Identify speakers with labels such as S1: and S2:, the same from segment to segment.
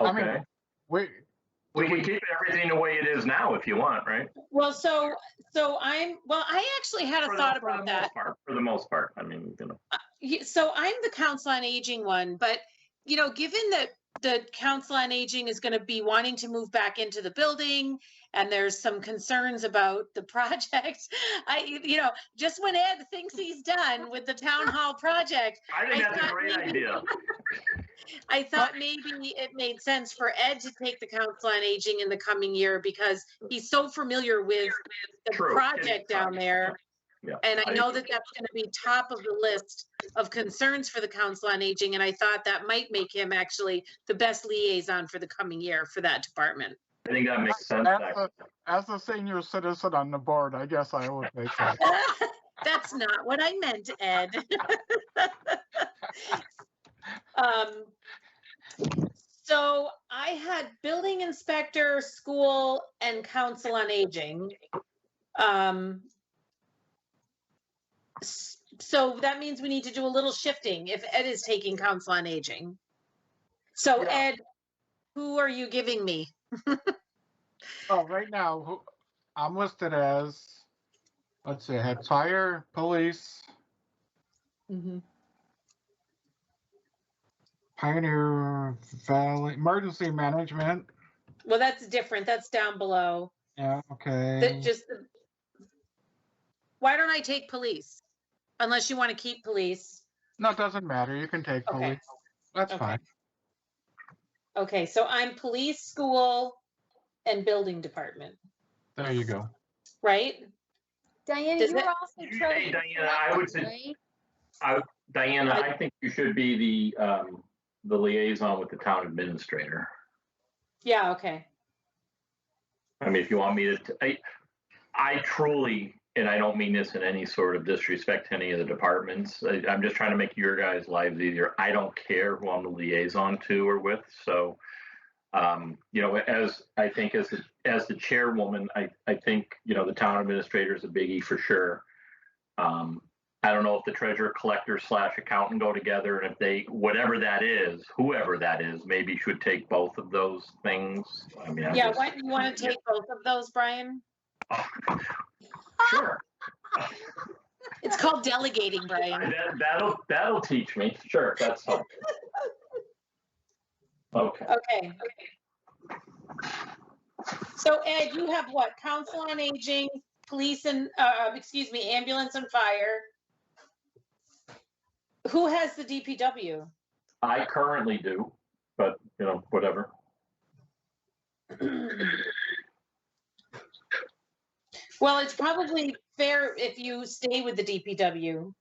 S1: I mean,
S2: Okay.
S1: We,
S2: We can keep everything the way it is now if you want, right?
S3: Well, so, so I'm, well, I actually had
S2: For
S3: a
S2: the-
S3: thought
S2: for the
S3: about
S2: most
S3: that.
S2: part- For the most part, I mean, you know,
S3: Ye- So I'm the council on aging one, but, you know, given that the council on aging is gonna be wanting to move back into the building and there's some concerns about the project, I, you know, just when Ed thinks he's done with the town hall project,
S2: I think
S3: I
S2: that's a
S3: thought
S2: great
S3: maybe-
S2: idea.
S3: I thought maybe it made sense for Ed to take the council on aging in the coming year because he's so familiar with the
S2: True.
S3: project down there.
S2: Yeah,
S3: And I
S2: I
S3: know
S2: agree.
S3: that that's gonna be top of the list of concerns for the council on aging, and I thought that might make him actually the best liaison for the coming year for that department.
S2: I think that makes sense.
S1: That's
S2: actually.
S1: as a senior citizen on the board, I guess I would make that.
S3: That's not what I meant, Ed. Um, so I had building inspector, school, and council on aging. Um, s- so that means we need to do a little shifting if Ed is taking council on aging. So
S1: Yeah.
S3: Ed, who are you giving me?
S1: Oh, right now, who, I'm listed as, let's see, I had fire, police, Pioneer Valley, emergency management.
S3: Well, that's different. That's down below.
S1: Yeah, okay.
S3: That just, why don't I take police? Unless you want to keep police.
S1: No, it doesn't matter. You can take
S3: Okay,
S1: police. That's
S3: Okay.
S1: fine.
S3: okay, so I'm police, school, and building department,
S1: There you go.
S3: right?
S4: Diana,
S3: Does
S4: you were
S3: it-
S4: also
S2: You-
S4: trying.
S2: hey, Diana, I would sug- Diana,
S3: I-
S2: I think you should be the, um, the liaison with the town administrator.
S3: Yeah, okay.
S2: I mean, if you want me to, t- I, I truly, and I don't mean this in any sort of disrespect to any of the departments. I, I'm just trying to make your guys' lives easier. I don't care who I'm the liaison to or with. So, um, you know, as I think as the, as the chairwoman, I, I think you know the town administrator is a biggie for sure. Um, I don't know if the treasurer collector slash accountant go together, and if they whatever that is, whoever that is, maybe should take both of those things. I mean, I
S3: Yeah,
S2: just-
S3: why do you want to take both of those, Brian?
S2: Sure.
S3: It's called delegating, Brian.
S2: That, that'll that'll teach me. Sure, that's helpful. Okay.
S3: Okay. So Ed, you have what? Council on Aging, police and, uh, excuse me, ambulance and fire. Who has the DPW?
S2: I currently do, but you know, whatever.
S3: Well, it's probably fair if you stay with the DPW.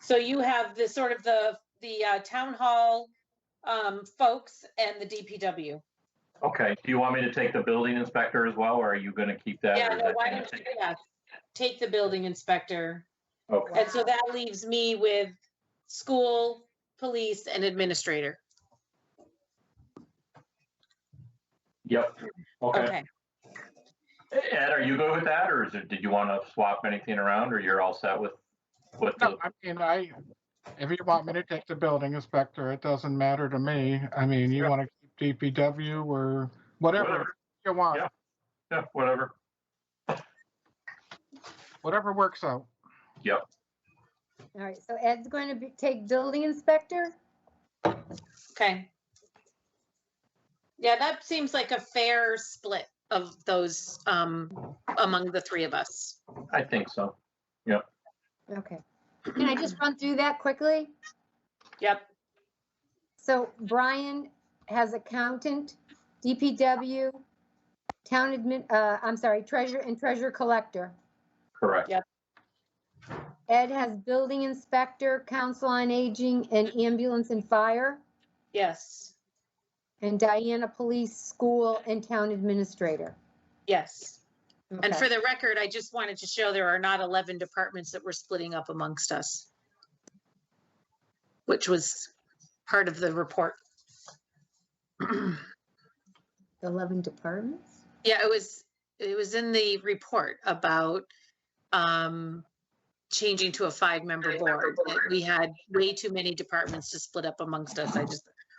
S3: So you have the sort of the, the uh, town hall um, folks and the DPW.
S2: Okay. Do you want me to take the building inspector as well, or are you going to keep that? or
S3: Yeah,
S2: is
S3: no,
S2: that
S3: why
S2: gonna
S3: don't you,
S2: take-
S3: yeah, take the building inspector.
S2: Okay.
S3: And so that leaves me with school, police, and administrator.
S2: Yep. Okay.
S3: Okay.
S2: Ed, are you good with that, or is it, did you want to swap anything around, or you're all set with with the?
S1: No, I mean, I, if you want me to take the building inspector, it doesn't matter to me. I mean, you
S2: Yeah.
S1: want to keep DPW or whatever you want,
S2: Yeah. Yeah, whatever.
S1: whatever works out.
S4: All right, so Ed's going to be, take building inspector?
S3: Okay. Yeah, that seems like a fair split of those um, among the three of us.
S2: I think so.
S4: Okay. Can I just run through that quickly?
S3: Yep.
S4: So Brian has accountant, DPW, town admin, uh, I'm sorry, treasurer and treasurer collector.
S2: Correct.
S4: Ed has building inspector, council on aging, and ambulance and fire.
S3: Yes.
S4: And Diana, police, school, and town administrator.
S3: Yes. And
S4: Okay.
S3: for the record, I just wanted to show there are not 11 departments that we're splitting up amongst us, which was part of the report.
S4: The 11 departments?
S3: Yeah, it was, it was in the report about um changing to a five-member board. that We had way too many departments to split up amongst us. I just